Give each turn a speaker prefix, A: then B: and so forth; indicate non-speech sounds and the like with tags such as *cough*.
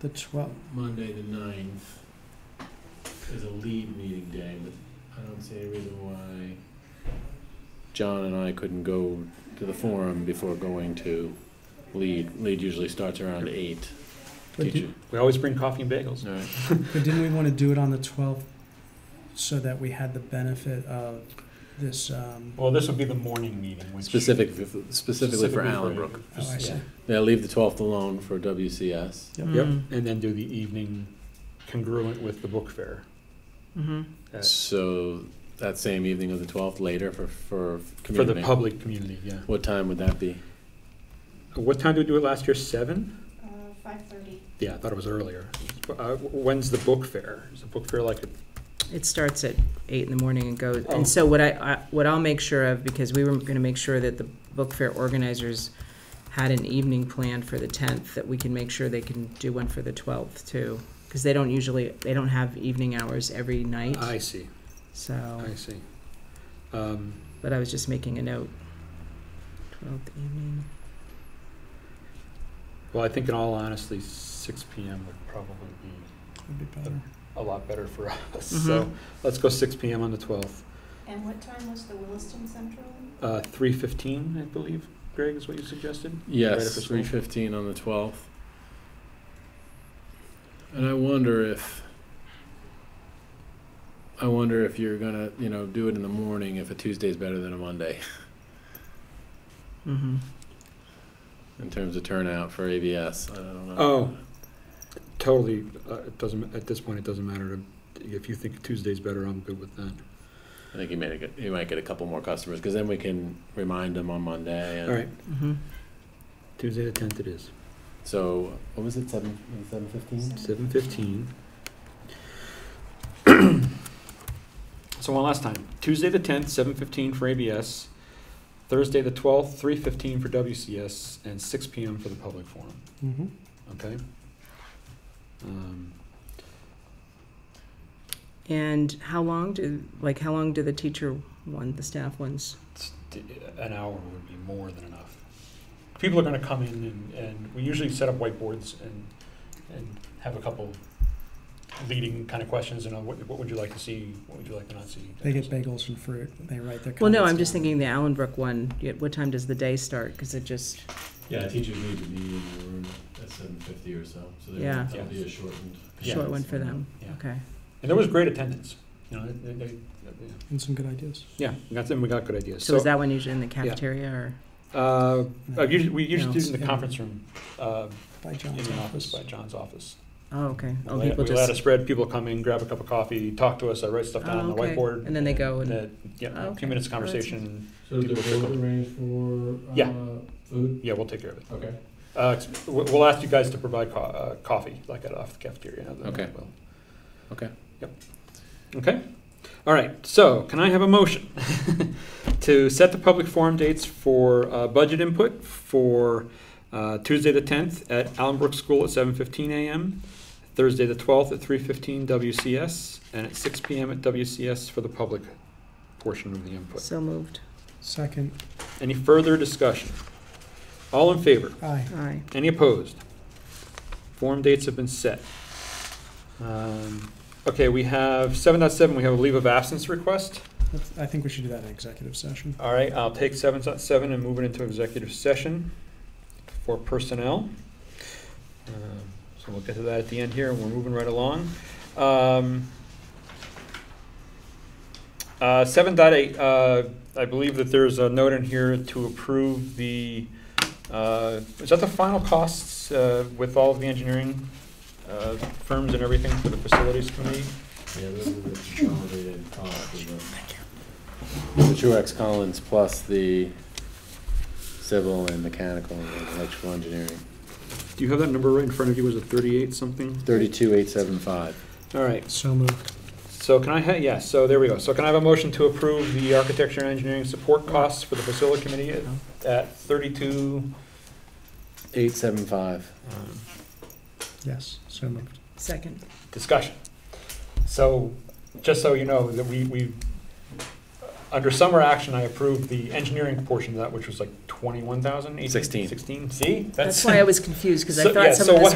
A: the twelfth.
B: Monday the ninth is a lead meeting day, but I don't see any reason why John and I couldn't go to the forum before going to lead. Lead usually starts around eight.
A: But,
B: Teacher.
A: di-
C: We always bring coffee and bagels.
B: All right.
A: but didn't we want to do it on the twelfth so that we had the benefit of this? Um,
C: Well, this would be the morning meeting, which.
B: Specific, specifically for Allenbrook.
A: oh, I see.
C: Yeah.
B: Yeah, leave the twelfth alone for WCS.
D: Mm.
C: Yep,
B: Hmm.
C: and then do the evening congruent with the book fair.
D: Mm-hmm.
C: at-
B: So that same evening of the twelfth, later for, for
C: For the
B: community.
C: public community, yeah.
B: What time would that be?
C: What time did we do it last year, seven?
E: Uh, five thirty.
C: Yeah, I thought it was earlier. Uh, when's the book fair? Is the book fair like, a-
D: It starts at eight in the morning and goes,
C: Oh.
D: and so what I, I, what I'll make sure of, because we were gonna make sure that the book fair organizers had an evening planned for the tenth, that we can make sure they can do one for the twelfth too. Cause they don't usually, they don't have evening hours every night,
C: I see,
D: so,
C: I see. Um,
D: but I was just making a note. Twelfth evening,
C: Well, I think in all honesty, six PM would probably be
A: Would be better.
C: a lot better for *laughs* us. So let's go six PM on the twelfth.
E: And what time was the Williston Central?
C: Uh, three fifteen, I believe, Greg, is what you suggested? Right after
B: Yes,
C: school?
B: three fifteen on the twelfth. And I wonder if, I wonder if you're gonna, you know, do it in the morning, if a Tuesday's better than a Monday, *laughs*
D: mm-hmm.
B: in terms of turnout for ABS, I don't know.
C: Oh. Totally, uh, it doesn't, at this point, it doesn't matter to, if you think Tuesday's better, I'm good with that.
B: I think you made a good, you might get a couple more customers, cause then we can remind them on Monday and.
C: All right,
D: Mm-hmm.
C: Tuesday the tenth it is,
B: So, what was it, seven, seven fifteen?
C: seven fifteen. *clears throat* So one last time, Tuesday the tenth, seven fifteen for ABS, Thursday the twelfth, three fifteen for WCS, and six PM for the public forum.
A: Mm-hmm.
C: Okay. Um,
D: And how long do, like, how long do the teacher one, the staff ones?
C: it's- d- an hour would be more than enough. People are gonna come in and, and we usually set up whiteboards and, and have a couple leading kind of questions and uh, what, what would you like to see, what would you like to not see?
A: They get bagels and fruit. They write their.
D: Well, no,
A: comments
D: I'm just
A: down.
D: thinking the Allenbrook one, yeah, what time does the day start? Because it just,
B: Yeah, teachers need to be in the room at seven fifty or so, so
D: there- Yeah.
C: that'll be
B: a shortened.
C: Yeah.
D: short one for them,
C: Yeah.
D: okay.
C: And there was great attendance, you know, they, they, they-
A: And some good ideas.
C: yeah, we got them, we got good ideas.
D: So
C: So,
D: is that one usually in the cafeteria or?
C: uh, I usually, we usually do it in the
A: Yeah.
C: conference room, uh,
A: By
C: in
A: John's
C: the office,
A: office.
C: by John's office.
D: Oh, okay. Oh,
C: We
D: people
C: we let a
D: just,
C: spread, people come in, grab a cup of coffee, talk to us, I write stuff down on
D: Oh,
C: the
D: okay.
C: whiteboard.
D: And then they go and-
C: that- Yeah,
D: Oh,
C: a few
D: okay.
C: minutes of
D: Well, that's
C: conversation,
B: So
C: the vote
B: arranged for,
C: Yeah.
B: food?
C: Yeah, we'll take care of it.
B: Okay.
C: Uh, ex- we- we'll ask you guys to provide co- uh, coffee, like at off the cafeteria. and then
B: Okay.
C: we'll-
B: Okay.
C: Yep. Okay. All right. So, can I have a motion *laughs* to set the public forum dates for uh, budget input for uh, Tuesday the tenth at Allenbrook School at seven fifteen a.m., Thursday the twelfth at three fifteen WCS, and at six p.m. at WCS for the public portion of the input.
D: so moved.
A: Second,
C: Any further discussion? All in favor?
A: aye.
D: Aye.
C: Any opposed? Form dates have been set. Um, Okay, we have, 7.7. we have a leave of absence request.
A: That's- I think we should do that in executive session.
C: All right, I'll take 7.7 and move it into executive session for personnel. Um, So we'll get to that at the end here, and we're moving right along. Um, uh, 7.8. uh, I believe that there's a note in here to approve the, uh, is that the final costs, uh, with all of the engineering, uh, firms and everything for the facilities committee?
B: Yeah, those are the consolidated costs of the. The Truax Collins plus the civil and mechanical and electrical engineering,
C: Do you have that number right in front of you? Was it thirty-eight something?
B: thirty-two, eight, seven, five.
C: All right,
A: So moved.
C: So can I, ha- yeah, so there we go. So can I have a motion to approve the architecture and engineering support costs for the facility committee at- at thirty-two?
B: Eight, seven, five.
C: um,
A: Yes, so moved.
D: Second.
C: Discussion. So, just so you know, that we, we, under summer action, I approved the engineering portion of that, which was like twenty-one thousand, eighteen?
B: Sixteen.
C: Sixteen, see?
D: That's why I was confused, because I thought
C: yeah,
D: some
C: so
D: of
C: what
D: this